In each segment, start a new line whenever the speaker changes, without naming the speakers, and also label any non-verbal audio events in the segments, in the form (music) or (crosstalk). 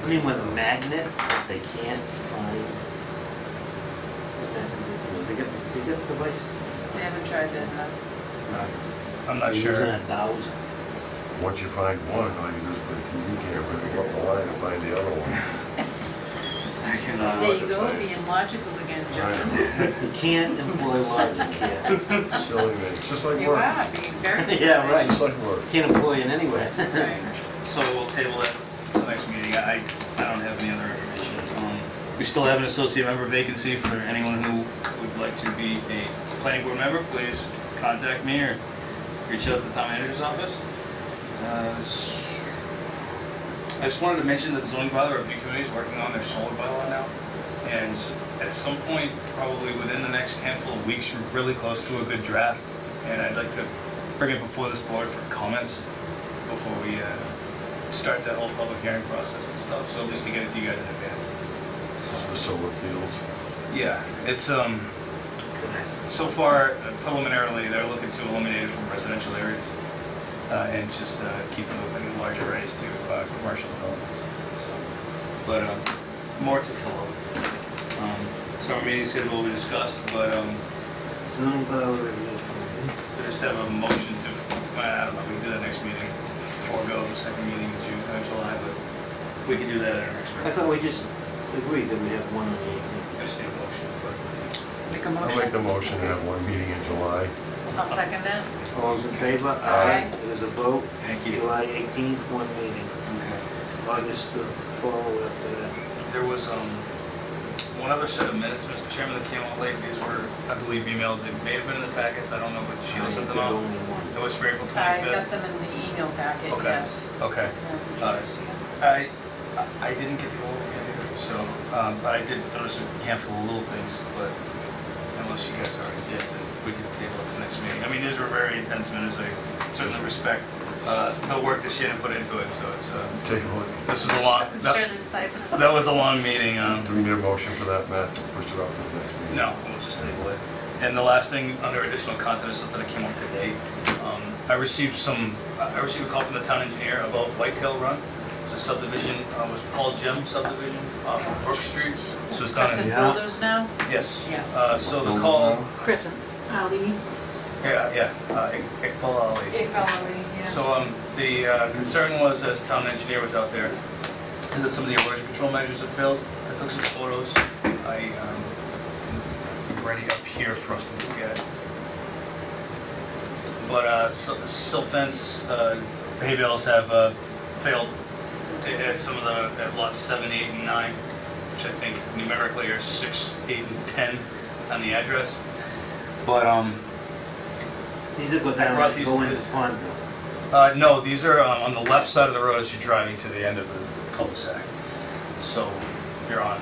happening with a magnet, they can't find. the magnet. You know, They get, they get devices.
They haven't tried that, huh?
I'm not
Using
sure.
a thousand.
Once you find one, all you do is put a TV camera and go up the line and find the other one.
I cannot.
There you go, being logical again, Joe.
You can't employ logic here.
(laughs)
Silly man, it's just like
You
work.
are being
(laughs)
very
Yeah,
silly.
right.
Just like work.
Can't employ it anyway.
Right.
So we'll table it till next meeting. I, I don't have any other information. Um, We still have an associate member vacancy for anyone who would like to be a planning board member, please contact me or reach out to the town manager's office. Uh, s- I just wanted to mention that zoning bylaw review committee is working on their solar bylaw now. And at some point, probably within the next handful of weeks, we're really close to a good draft. And I'd like to bring it before this board for comments before we uh, start that whole public hearing process and stuff. So just to get it to you guys in advance.
This is for solar fields.
Yeah, it's, um, so far uh, preliminarily, they're looking to eliminate it from residential areas uh, and just uh, keep them open in large arrays to uh, commercial developments. So, But um, more to follow. Um, Summer meeting schedule will be discussed, but um,
Zoning bylaw review committee.
we just have a motion to, uh, I don't know, we can do that next meeting. Forego the second meeting in June, uh, July, but we can do that at our next
I
meeting.
thought we just agreed that we have one on the eighteenth.
I state motion, but
Make a
I'll make the
motion.
motion and have one meeting in July.
I'll second that.
All those in favor?
Aye.
It is a vote.
thank you.
July eighteenth, one meeting. August the follow after that.
There was um, one other set of minutes, Mr. Chairman, that came out late. These were, I believe, emailed. They may have been in the packets. I don't know, but Sheila sent them
There's
out.
only one.
It was for April
I got
25th.
them in the email packet,
Okay. Uh,
yes.
Okay.
Yeah, did you
All right.
see them?
I, I- I didn't get to go over it either, so, um, but I did notice a handful of little things, but unless you guys already did, then we can table it to next meeting. I mean, these were very intense minutes. I certainly respect uh, the work that Shannon put into it, so it's, uh,
Take a look.
this was a long,
I'm sure
that
there's typos. (laughs)
that was a long meeting. um,
Do we need a motion for that, Matt? Push it off to the next meeting?
No, we'll just table it. And the last thing, under additional content, is something that came up today. Um, I received some, I I received a call from the town engineer about Whitetail Run. It's a subdivision, uh, was Paul Jim subdivision off of Brook Street. So it's
Crescent
done,
Yeah.
Builders now?
yes.
Yes.
Uh, So the call,
Crescent. Ali.
yeah, yeah, uh, Ik- Iqbal Ali.
yeah.
So um, the uh, concern was, as town engineer was out there, is that some of the erosion control measures have failed. I took some photos. I um, am ready up here for us to look at. But uh, sil- silt fence, uh, hay bales have uh, failed at some of the, at lots seven, eight, and nine, which I think numerically are six, eight, and 10 on the address. But um,
These are go
I
down
brought
and
these
go
to
into
this-
Pondville.
Uh, no, these are um, on the left side of the road as you're driving to the end of the cul-de-sac. So if you're on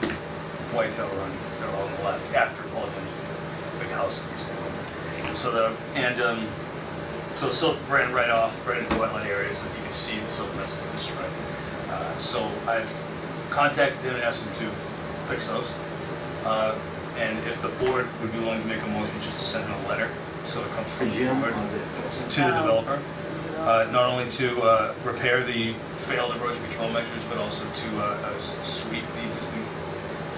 Whitetail Run, they're all on the left after Paul Jim's big house that we stayed with. So the, and, um, so the silt ran right off, right into the wetland areas, and you can see the silt fence is destroyed. Uh, So I've contacted him and asked him to fix those. Uh, And if the board would be willing to make a motion, just to send him a letter, so it comes
The
from the
gym
board
on the.
to the developer uh, not only to uh, repair the failed erosion control measures, but also to uh, uh, s- sweep the existing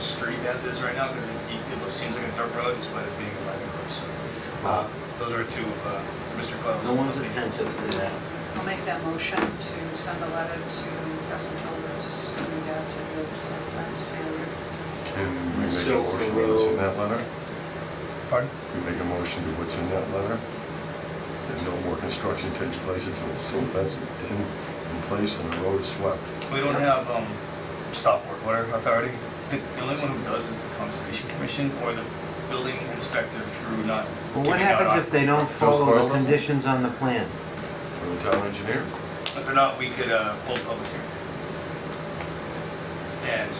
street as is right now, because it, it seems like a dirt road despite it being a living road. So, uh, those are two of uh, Mr. Coyle's.
No one's attentive to that.
I'll make that motion to send a letter to Crescent Builders in regard to the site plan's failure.
Can we make a
Silver
motion to what's in
Road.
that letter?
Pardon?
We make a motion to what's in that letter? That no more construction takes place until it's silt fence in, in place and the road swept.
We don't have um, stop work order authority. The, the only one who does is the Conservation Commission or the building inspector through not.
Well, what
giving out
happens if
occup-
they don't follow
Those
the
bylaws?
conditions on the plan?
For the town engineer?
If they're not, we could uh, hold public hearing. And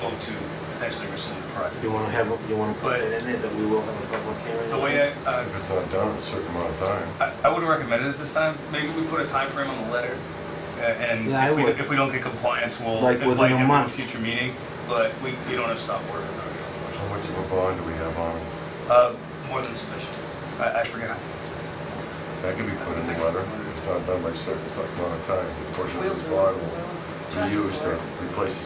vote to potentially rescind the project.
You want to have, a- you want to put
But-
it in there that we will have a public hearing?
The way I, uh,
If it's not done in a certain amount of time.
I, I would recommend it at this time. Maybe we put a time frame on the letter, uh, and
Yeah, I
if, we,
would.
if we don't get compliance, we'll
Like within
invite
a
him
month.
to a future meeting. But we, we don't have stop order authority,
How
unfortunately.
much of a bond do we have on it?
Uh, more than sufficient. I, I forgot.
That can be put in the letter. If it's not done by a certain amount of time, a portion of
Wheels
this
are-
bond
will-
will be used to replace the